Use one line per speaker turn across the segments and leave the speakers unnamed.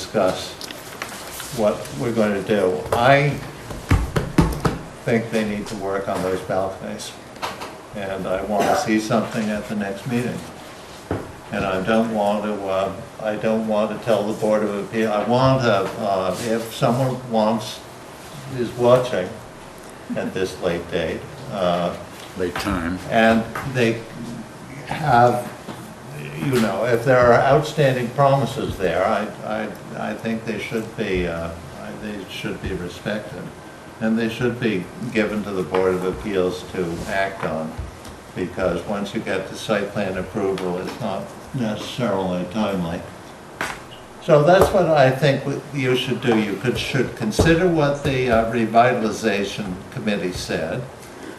discuss what we're gonna do. I think they need to work on those balconies. And I wanna see something at the next meeting. And I don't want to, uh, I don't want to tell the Board of Appeal, I want to, uh, if someone wants, is watching at this late date, uh,
late time.
and they have, you know, if there are outstanding promises there, I, I, I think they should be, uh, I- they should be respected. And they should be given to the Board of Appeals to act on, because once you get the site plan approval, it's not necessarily timely. So that's what I think what you should do. You could, should consider what the uh, revitalization committee said.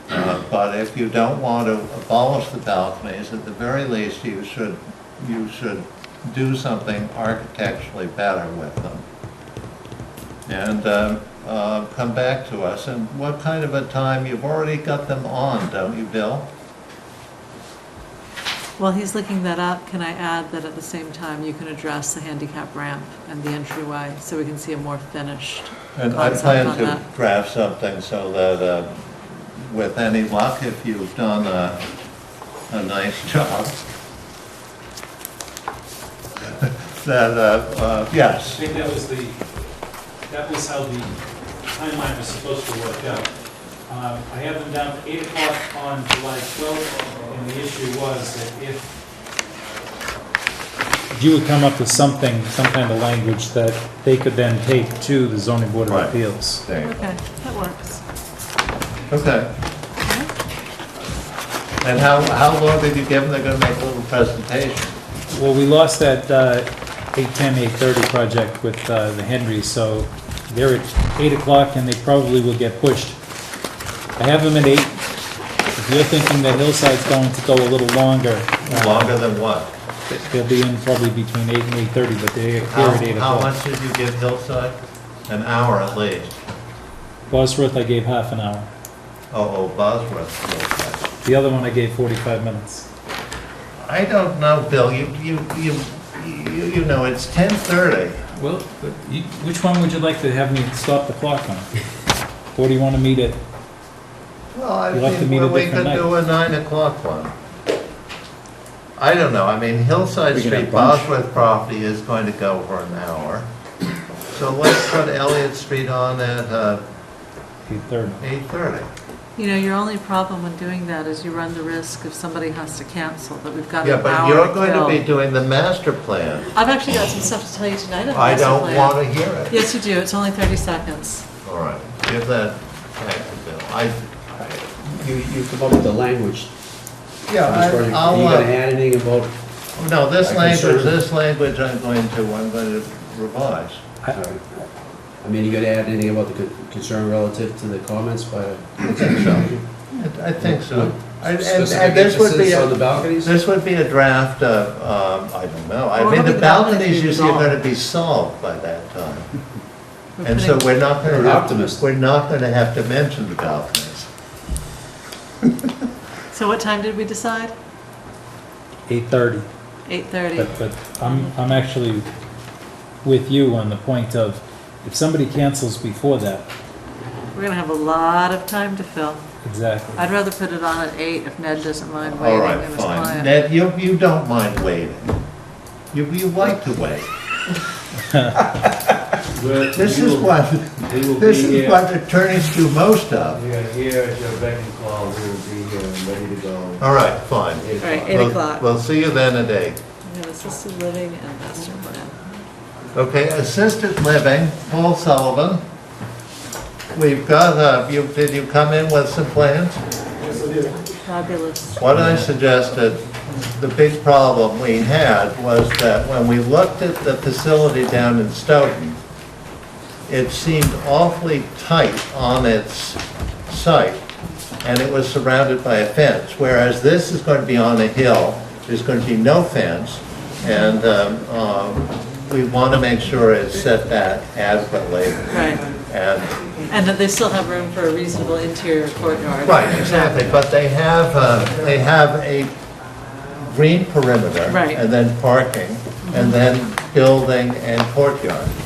Uh, But if you don't want to abolish the balconies, at the very least, you should, you should do something architecturally better with them. And um, uh, come back to us, and what kind of a time, you've already got them on, don't you, Bill?
While he's looking that up, can I add that at the same time, you can address the handicap ramp and the entryway, so we can see a more finished
And I
concept
plan
on
to
that.
draft something so that, uh, with any luck, if you've done a, a nice job, that, uh, uh,
I
yes,
think that was the, that was how the timeline was supposed to work out. Um, I have them down to eight o'clock on July twelfth, and the issue was that if.
You would come up with something, some kind of language that they could then take to the zoning board
Right.
of appeals.
there you go.
Okay, that works.
Okay. And how, how long did you give them? They're gonna make a little presentation.
Well, we lost that uh, 810, 830 project with uh, the Henrys, so they're at 8 o'clock and they probably will get pushed. I have them at 8. If you're thinking that Hillside's going to go a little longer, uh,
Longer than what?
they'll be in probably between 8 and 8:30, but they're here
How,
at 8
how
o'clock.
much did you give Hillside? An hour at least.
Bosworth, I gave half an hour.
Oh, oh, Bosworth Hillside.
The other one, I gave 45 minutes.
I don't know, Bill, you, you, you, you you know, it's ten thirty.
Well, but you- which one would you like to have me stop the clock on? Or do you want to meet at,
Well, I
You'll have to
think
meet
we
a
we could
different
do a nine o'clock one. I don't know, I mean, Hillside
We can have
Street,
brunch.
Bosworth property is going to go for an hour. So let's put Elliott Street on at, uh,
eight thirty?
eight thirty.
You know, your only problem when doing that is you run the risk if somebody has to cancel, that we've got
Yeah,
an
but
hour
you're going to be
to kill.
doing the master plan.
I've actually got some stuff to tell you tonight. on
I
master
don't
plan.
want to hear it.
Yes, you do, it's only 30 seconds.
All right, give that back to Bill. I,
You, you come up with the language.
yeah, uh,
Are you gonna add anything about,
no, this
uh, I
language,
concern-
this language I'm going to, I'm going to revise.
I mean, you gonna add anything about the con- concern relative to the comments by?
I think so. I- I think so. And, and-
Specific
and this would be,
emphasis
a-
On the balconies?
this would be a draft of, um, I don't know. I
Well,
mean,
it'll
the
be the balconies
balconies
being
issue are going to
solved.
be solved by that time.
We're
And so
putting-
we're not going
You're
to.
an optimist.
We're not going to have to mention the balconies.
So what time did we decide?
Eight thirty,
8:30.
but, but I'm, I'm actually with you on the point of, if somebody cancels before that,
We're gonna have a lot of time to fill.
exactly.
I'd rather put it on at 8 if Ned doesn't mind
All
waiting
right,
and his
fine.
client.
Ned, you, you don't mind waiting. You, you like to wait. This is what, this is what attorneys do most of.
You're here, at your beck and call, we will be here and ready to go.
All right, fine.
All right, 8
We'll-
o'clock.
We'll see you then at eight.
Yeah, Assisted living and master plan.
Okay, assisted living, Paul Sullivan. We've got, uh, you, did you come in with some plans?
Fabulous.
What I suggested, the big problem we had was that when we looked at the facility down in Stoughton, it seemed awfully tight on its site, and it was surrounded by a fence, whereas this is going to be on a hill, there's going to be no fence, and um, um, we want to make sure it's set back adequately,
Right,
and
and that they still have room for a reasonable interior courtyard.
Right, exactly, but they have, uh, they have a green perimeter.
Right.
And then parking, and then building and courtyard.